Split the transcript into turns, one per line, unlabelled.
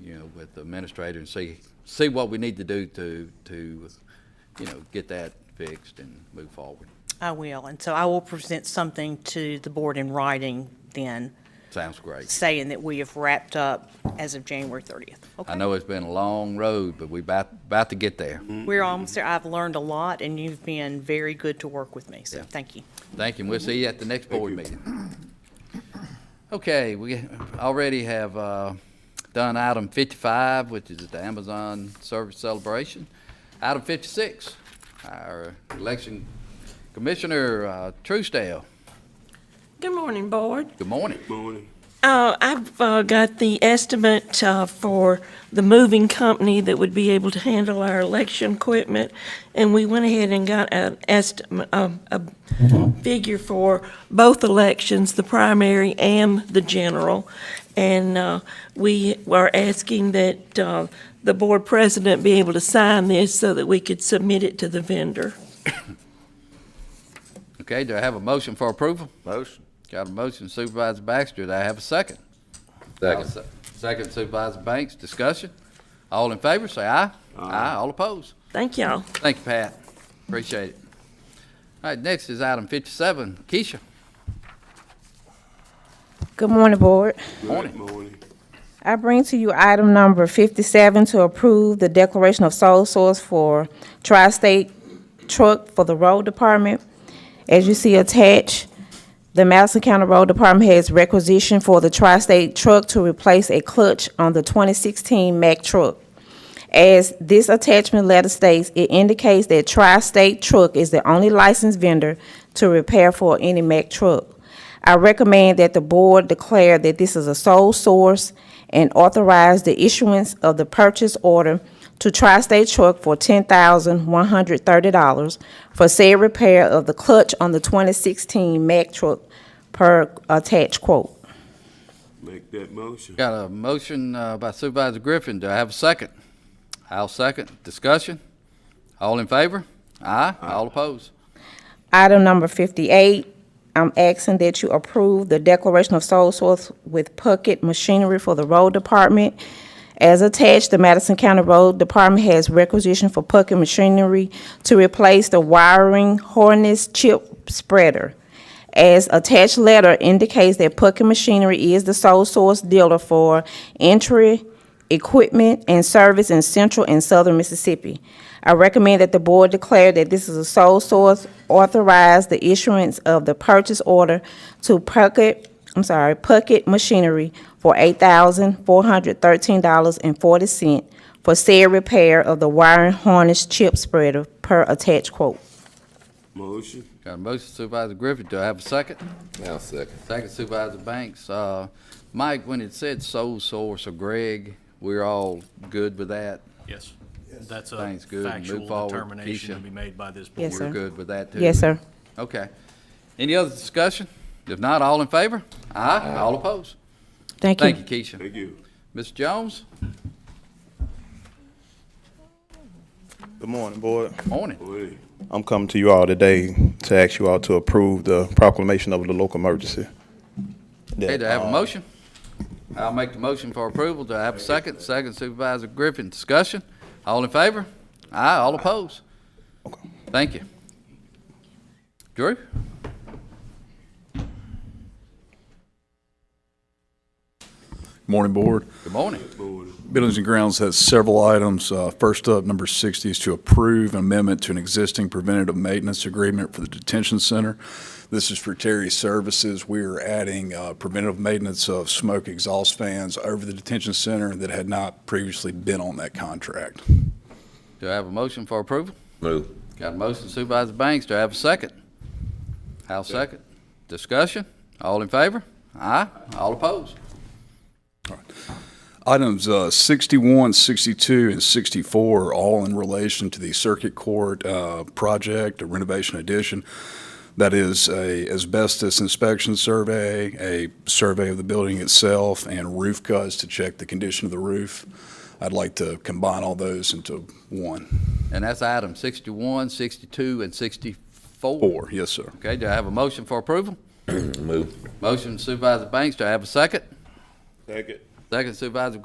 you know, with the administrator and see, see what we need to do to, to, you know, get that fixed and move forward.
I will, and so I will present something to the board in writing then,
Sounds great.
saying that we have wrapped up as of January 30th.
I
Okay,
know it's been a long road, but we about, about to get there.
We're almost there. I've learned a lot, and you've been very good to work with me, so
Yeah.
thank you.
Thank you, and we'll see you at the next board meeting. Okay, we already have uh, done item 55, which is the Amazon Service Celebration. Item 56, our election commissioner, uh, Truesdale,
Good morning, Board.
good morning.
Uh, I've uh, got the estimate uh, for the moving company that would be able to handle our election equipment, and we went ahead and got an estimate, um, a figure for both elections, the primary and the general. And uh, we are asking that uh, the Board President be able to sign this so that we could submit it to the vendor.
Okay, do I have a motion for approval?
Motion.
Got a motion Supervisor Baxter, do I have a second? I'll se- Second Supervisor Banks, discussion? All in favor, say aye. Aye, all opposed?
Thank y'all.
Thank you, Pat. Appreciate it. All right, next is item fifty-seven. Keisha,
Good morning, Board.
morning.
I bring to you item number 57 to approve the declaration of sole source for tri-state truck for the road department. As you see attached, the Madison County Road Department has requisition for the tri-state truck to replace a clutch on the 2016 Mack truck. As this attachment letter states, it indicates that Tri-State Truck is the only licensed vendor to repair for any Mack truck. I recommend that the board declare that this is a sole source and authorize the issuance of the purchase order to Tri-State Truck for ten thousand one hundred thirty dollars for said repair of the clutch on the twenty sixteen Mack truck per attached quote.
Make that motion.
Got a motion uh, by Supervisor Griffin. Do I have a second? I'll second. Discussion? All in favor? Aye, all opposed?
Item number fifty-eight, I'm asking that you approve the declaration of sole source with Puckett Machinery for the Road Department. As attached, the Madison County Road Department has requisition for Puckett Machinery to replace the wiring harness chip spreader. As attached letter indicates that Puckett Machinery is the sole source dealer for entry, equipment, and service in central and southern Mississippi. I recommend that the board declare that this is a sole source, authorize the issuance of the purchase order to Puckett, I'm sorry, Puckett Machinery for eight thousand four hundred thirteen dollars and forty cent for said repair of the wiring harness chip spreader per attached quote.
Motion.
Got a motion Supervisor Griffin. Do I have a second?
Now second.
Second Supervisor Banks. Uh, Mike, when it said sole source of Greg, we're all good with that?
Yes. That's a
Thanks, good. Move
factual
forward,
determination to
Keisha.
be made by this board.
Yes,
We're
sir.
good with that too?
Yes, sir.
Okay. Any other discussion? If not, all in favor? Aye, all opposed?
Thank you.
Thank you, Keisha.
Thank you.
Ms. Jones,
Good morning, Board.
morning.
Morning.
I'm coming to you all today to ask you all to approve the proclamation of the local emergency.
Okay, do I have a
Uh,
motion? I'll make the motion for approval. Do I have a second? Second Supervisor Griffin, discussion? All in favor? Aye, all opposed? Thank you. Drew?
Morning, Board.
Good morning.
Buildings and Grounds has several items. Uh, First up, number 60 is to approve an amendment to an existing preventative maintenance agreement for the detention center. This is for Terry Services. We are adding uh, preventative maintenance of smoke exhaust fans over the detention center that had not previously been on that contract.
Do I have a motion for approval?
Move.
Got a motion Supervisor Banks. Do I have a second? I'll second. Discussion? All in favor? Aye, all opposed?
Items uh, 61, 62, and 64 are all in relation to the Circuit Court uh, project, a renovation addition. That is a asbestos inspection survey, a survey of the building itself, and roof cuts to check the condition of the roof. I'd like to combine all those into one.
And that's item 61, 62, and 64.
Four, yes, sir.
Okay, do I have a motion for approval?
Move.
Motion Supervisor Banks, do I have a second?
Second.
Second Supervisor